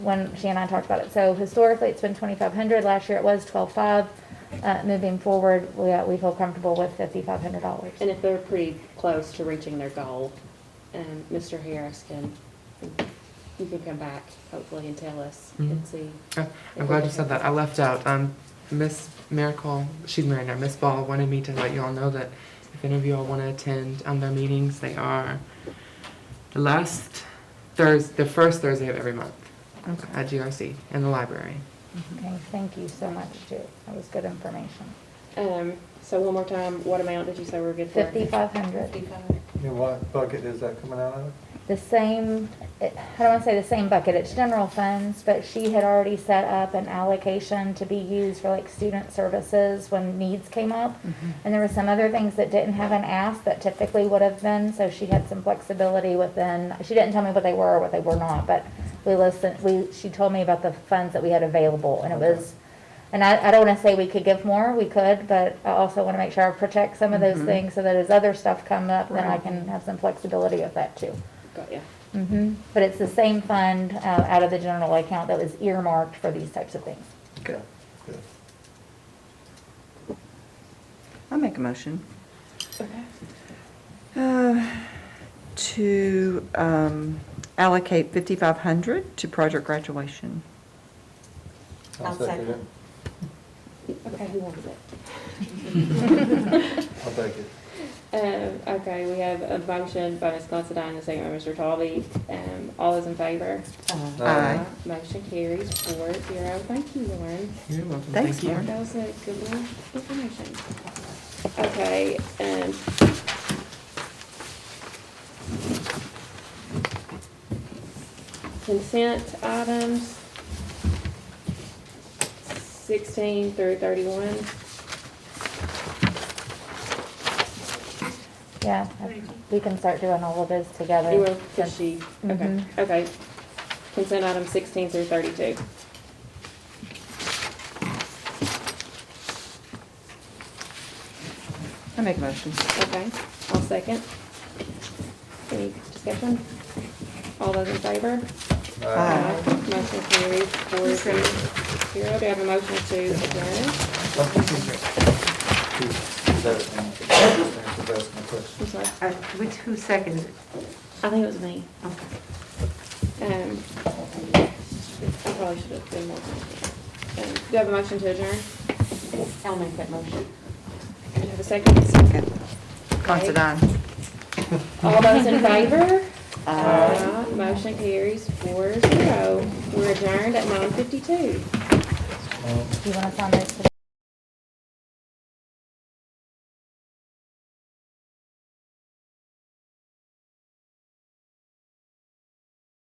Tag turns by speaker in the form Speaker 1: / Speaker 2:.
Speaker 1: when she and I talked about it. So historically, it's been twenty-five hundred. Last year, it was twelve-five. Uh, moving forward, we, uh, we feel comfortable with fifty-five hundred dollars.
Speaker 2: And if they're pretty close to reaching their goal, um, Mr. Harris can, you can come back hopefully and tell us and
Speaker 3: Mhm.
Speaker 2: see.
Speaker 3: Oh, I'm glad you said that. I left out, um, Miss Miracle, she's married now, Miss Ball wanted me to let you all know that if any of you all want to attend, um, their meetings, they are the last Thursday, the first Thursday of every month at GRC in the library.
Speaker 1: Okay, thank you so much, Jude. That was good information.
Speaker 2: Um, so one more time, what amount did you say we we're good for?
Speaker 1: Fifty-five hundred,
Speaker 2: Fifty-five.
Speaker 4: And what bucket is that coming out of?
Speaker 1: the same, it- I don't wanna say the same bucket, it's general funds, but she had already set up an allocation to be used for like student services when needs came up.
Speaker 5: Mm-hmm.
Speaker 1: And there were some other things that didn't have an ask that typically would have been, so she had some flexibility within, she didn't tell me what they were or what they were not, but we listened, we, she told me about the funds that we had available, and it was, and I, I don't wanna say we could give more, we could, but I also wanna make sure I protect some of those
Speaker 2: Mm-hmm.
Speaker 3: Mhm.
Speaker 1: things, so that as other stuff come up, then I
Speaker 3: Right.
Speaker 1: can have some flexibility with that too.
Speaker 2: Got ya. Mm-hmm.
Speaker 1: hmm but it's the same fund, uh, out of the general account that was earmarked for these types of things.
Speaker 4: Good. Good.
Speaker 5: I'll make a motion
Speaker 2: Okay.
Speaker 5: uh, to um, allocate 5,500 to project graduation.
Speaker 4: I'll second it.
Speaker 2: Okay, who wanted it?
Speaker 4: I'll take it.
Speaker 2: Um, okay, we have a motion by Ms. Considine, a second by Mr. Talby. Um, all those in favor?
Speaker 5: Aye.
Speaker 2: Motion carries four zero. Thank you, Lauren.
Speaker 3: You're welcome.
Speaker 5: Thanks,
Speaker 3: Thank you.
Speaker 5: Lauren.
Speaker 2: That was a good one, information. Okay, um. Consent items. Sixteen through thirty-one.
Speaker 1: Yeah, we can start doing all of those together.
Speaker 2: You will, cause she, okay,
Speaker 1: Mhm.
Speaker 2: okay. Consent item sixteen through thirty-two.
Speaker 5: I make a motion.
Speaker 2: Okay, I'll second. Any discussion? All those in favor?
Speaker 5: Aye.
Speaker 2: Motion carries four zero zero. Do I have a motion to adjourn?
Speaker 4: That's my question.
Speaker 2: I'm sorry.
Speaker 6: Uh, Which, who seconded it?
Speaker 2: I think it was me.
Speaker 6: Okay.
Speaker 2: Um, I probably should have been more. Um, Do you have a motion to adjourn?
Speaker 6: I'll make that motion.
Speaker 2: Do you have a second?
Speaker 5: Considine.
Speaker 2: All those in favor? Aye. Motion carries four zero. We're adjourned at nine fifty-two.
Speaker 4: Um,
Speaker 1: Do you wanna sign those today?